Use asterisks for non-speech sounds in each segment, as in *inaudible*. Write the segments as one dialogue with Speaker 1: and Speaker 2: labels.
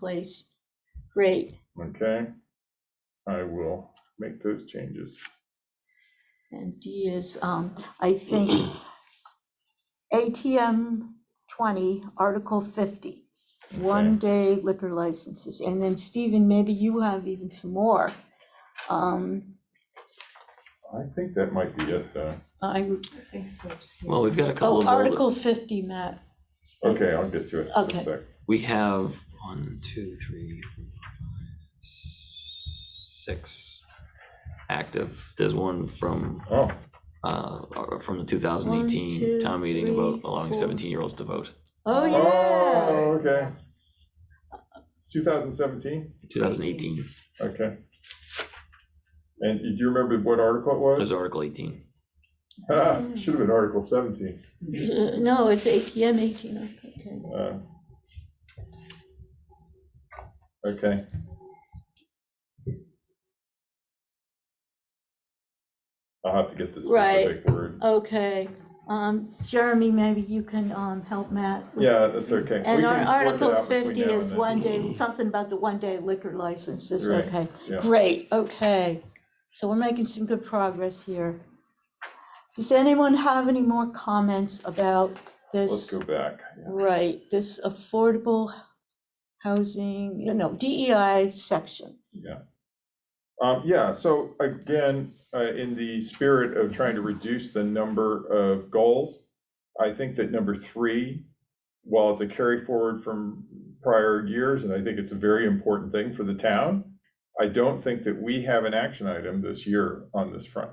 Speaker 1: place. Great,
Speaker 2: Okay, I will make those changes.
Speaker 1: and D is, um, I think, ATM twenty, Article fifty, one day liquor licenses, and then Stephen, maybe you have even some more. Um,
Speaker 2: I think that might be it, though.
Speaker 1: I,
Speaker 3: Well, we've got a couple
Speaker 1: oh,
Speaker 3: of
Speaker 1: Article
Speaker 3: bullet,
Speaker 1: fifty, Matt,
Speaker 2: Okay, I'll get to it in
Speaker 1: Okay.
Speaker 2: a sec.
Speaker 3: we have one, two, three, four, five, s- six active. There's one from,
Speaker 2: Oh,
Speaker 3: uh, uh, from the
Speaker 1: One, two,
Speaker 3: 2018 town meeting about
Speaker 1: three,
Speaker 3: allowing
Speaker 1: four.
Speaker 3: 17-year-olds to vote.
Speaker 1: oh, yeah.
Speaker 2: oh, okay. It's 2017,
Speaker 3: 2018,
Speaker 2: okay. And do you remember what article it was?
Speaker 3: there's Article 18.
Speaker 2: Ah, *laughs* should have been Article 17.
Speaker 1: Uh, No, it's ATM eighteen, okay.
Speaker 2: Uh, Okay. I'll have to get the
Speaker 1: Right.
Speaker 2: specific word.
Speaker 1: Okay, um, Jeremy, maybe you can, um, help Matt with
Speaker 2: Yeah, that's okay. We
Speaker 1: Mm-hmm. And
Speaker 2: can
Speaker 1: our
Speaker 2: work it
Speaker 1: Article
Speaker 2: out between
Speaker 1: 50
Speaker 2: now and
Speaker 1: is
Speaker 2: then.
Speaker 1: one day, something about the one-day liquor licenses,
Speaker 2: Right,
Speaker 1: okay.
Speaker 2: yeah.
Speaker 1: Great, okay. So we're making some good progress here. Does anyone have any more comments about
Speaker 2: Let's
Speaker 1: this?
Speaker 2: go back.
Speaker 1: Right, this affordable housing, you know, DEI section.
Speaker 2: Um, yeah, so again, uh, in the spirit of trying to reduce the number of goals, I think that number three, while it's a carry forward from prior years, and I think it's a very important thing for the town, I don't think that we have an action item this year on this front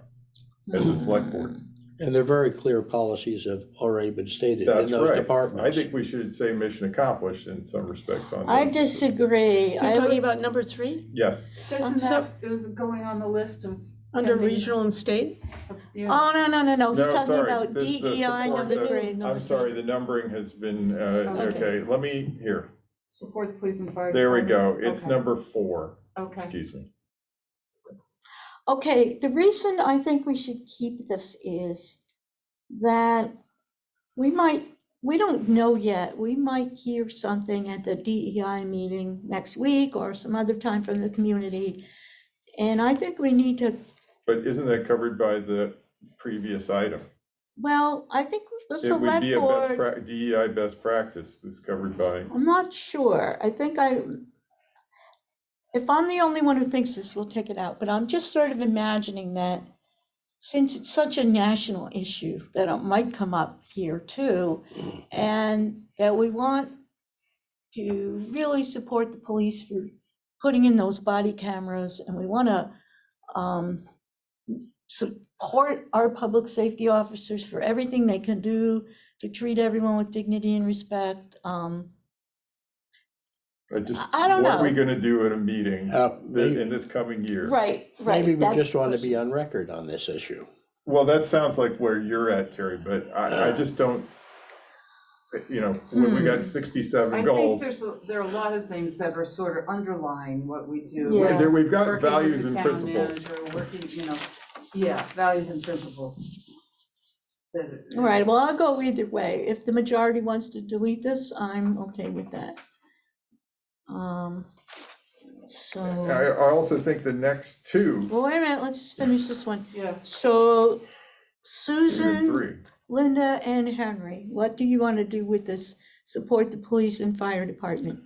Speaker 2: as a select board.
Speaker 4: And they're very clear policies have already been stated in
Speaker 2: That's
Speaker 4: those
Speaker 2: right. I
Speaker 4: departments.
Speaker 2: think we should say mission accomplished in some respects on
Speaker 1: I
Speaker 2: this.
Speaker 1: disagree.
Speaker 5: You're
Speaker 1: I
Speaker 5: talking
Speaker 1: would-
Speaker 5: about number three,
Speaker 2: Yes,
Speaker 1: Um,
Speaker 6: Doesn't
Speaker 1: so-
Speaker 6: that, is going on the list of.
Speaker 5: under
Speaker 6: pending-
Speaker 5: regional and state?
Speaker 6: of- yeah.
Speaker 2: Um,
Speaker 1: Oh, no, no, no, no,
Speaker 2: No,
Speaker 1: he's talking
Speaker 2: sorry,
Speaker 1: about
Speaker 2: this is the
Speaker 1: DEI
Speaker 2: support
Speaker 1: number
Speaker 2: that-
Speaker 1: three.
Speaker 2: I'm sorry, the numbering has been, uh,
Speaker 6: Okay.
Speaker 2: okay, let me, here,
Speaker 6: Support the police and fire.
Speaker 2: there we go.
Speaker 6: department.
Speaker 2: It's
Speaker 6: Okay,
Speaker 2: number four,
Speaker 6: Okay,
Speaker 2: excuse me.
Speaker 1: Okay, the reason I think we should keep this is that we might, we don't know yet, we might hear something at the DEI meeting next week or some other time from the community. And I think we need to,
Speaker 2: But isn't that covered by the previous item?
Speaker 1: well, I think the
Speaker 2: It would
Speaker 1: select
Speaker 2: be a best,
Speaker 1: board,
Speaker 2: prac- DEI best practice that's covered by,
Speaker 1: I'm not sure, I think I, if I'm the only one who thinks this, we'll take it out, but I'm just sort of imagining that since it's such a national issue that it might come up here too, and that we want to really support the police for putting in those body cameras, and we want to um, support our public safety officers for everything they can do to treat everyone with dignity and respect. Um,
Speaker 2: I just,
Speaker 1: I- I don't
Speaker 2: what are we
Speaker 1: know.
Speaker 2: gonna do at a meeting
Speaker 4: Uh,
Speaker 2: thi-
Speaker 4: may-
Speaker 2: in this coming year?
Speaker 1: Right, right.
Speaker 4: Maybe we
Speaker 1: that's
Speaker 4: just
Speaker 1: the
Speaker 4: want to
Speaker 1: question.
Speaker 4: be on record on this issue.
Speaker 2: Well, that sounds like where you're at, Terry, but I, I just don't, you know, when we
Speaker 1: Hmm.
Speaker 2: got
Speaker 6: I
Speaker 2: sixty-seven
Speaker 6: think
Speaker 2: goals.
Speaker 6: there's, a- there are a lot of things that are sort of underlying what we do.
Speaker 1: Yeah.
Speaker 2: There, we've got
Speaker 6: Working with
Speaker 2: values
Speaker 6: the
Speaker 2: and
Speaker 6: town
Speaker 2: principles.
Speaker 6: manager, Working, you know, yeah, values and principles. That-
Speaker 1: All right, well, I'll go either way. If the majority wants to delete this, I'm okay with that. Um, so,
Speaker 2: I, I also think the next two,
Speaker 1: well, wait a minute, let's just finish this one.
Speaker 6: Yeah,
Speaker 1: So
Speaker 2: two and
Speaker 1: Susan,
Speaker 2: three.
Speaker 1: Linda, and Henry, what do you want to do with this? Support the police and fire department?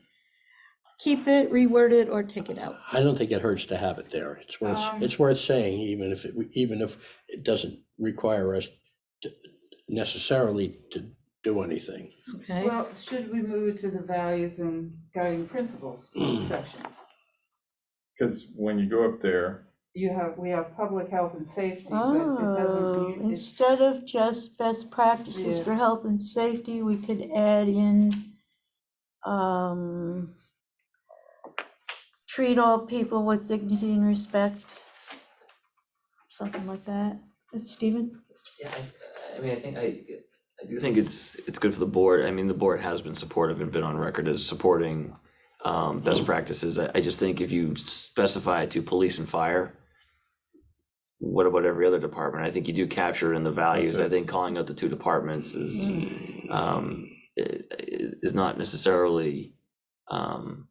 Speaker 1: Keep it, reword it, or take it out?
Speaker 4: I don't think it hurts to have it there. It's worth,
Speaker 6: Um,
Speaker 4: it's worth saying, even if, it even if it doesn't require us to- necessarily to do anything.
Speaker 1: Okay,
Speaker 6: well, should we move to the values and guiding principles section?
Speaker 2: Cause when you go up there,
Speaker 6: You have, we have public health and safety, but it
Speaker 1: oh,
Speaker 6: doesn't, it's
Speaker 1: instead of just best practices
Speaker 6: Yeah.
Speaker 1: for health and safety, we could add in, um, treat all people with dignity and respect, something like that. Stephen?
Speaker 3: Yeah, I, I mean, I think I, I do think it's, it's good for the board. I mean, the board has been supportive and been on record as supporting um, best practices. I, I just think if you specify to police and fire, what about every other department? I think you do capture it in the values.
Speaker 2: That's it. Hmm.
Speaker 3: I think calling out the two departments is, um, i- i- is not necessarily, um,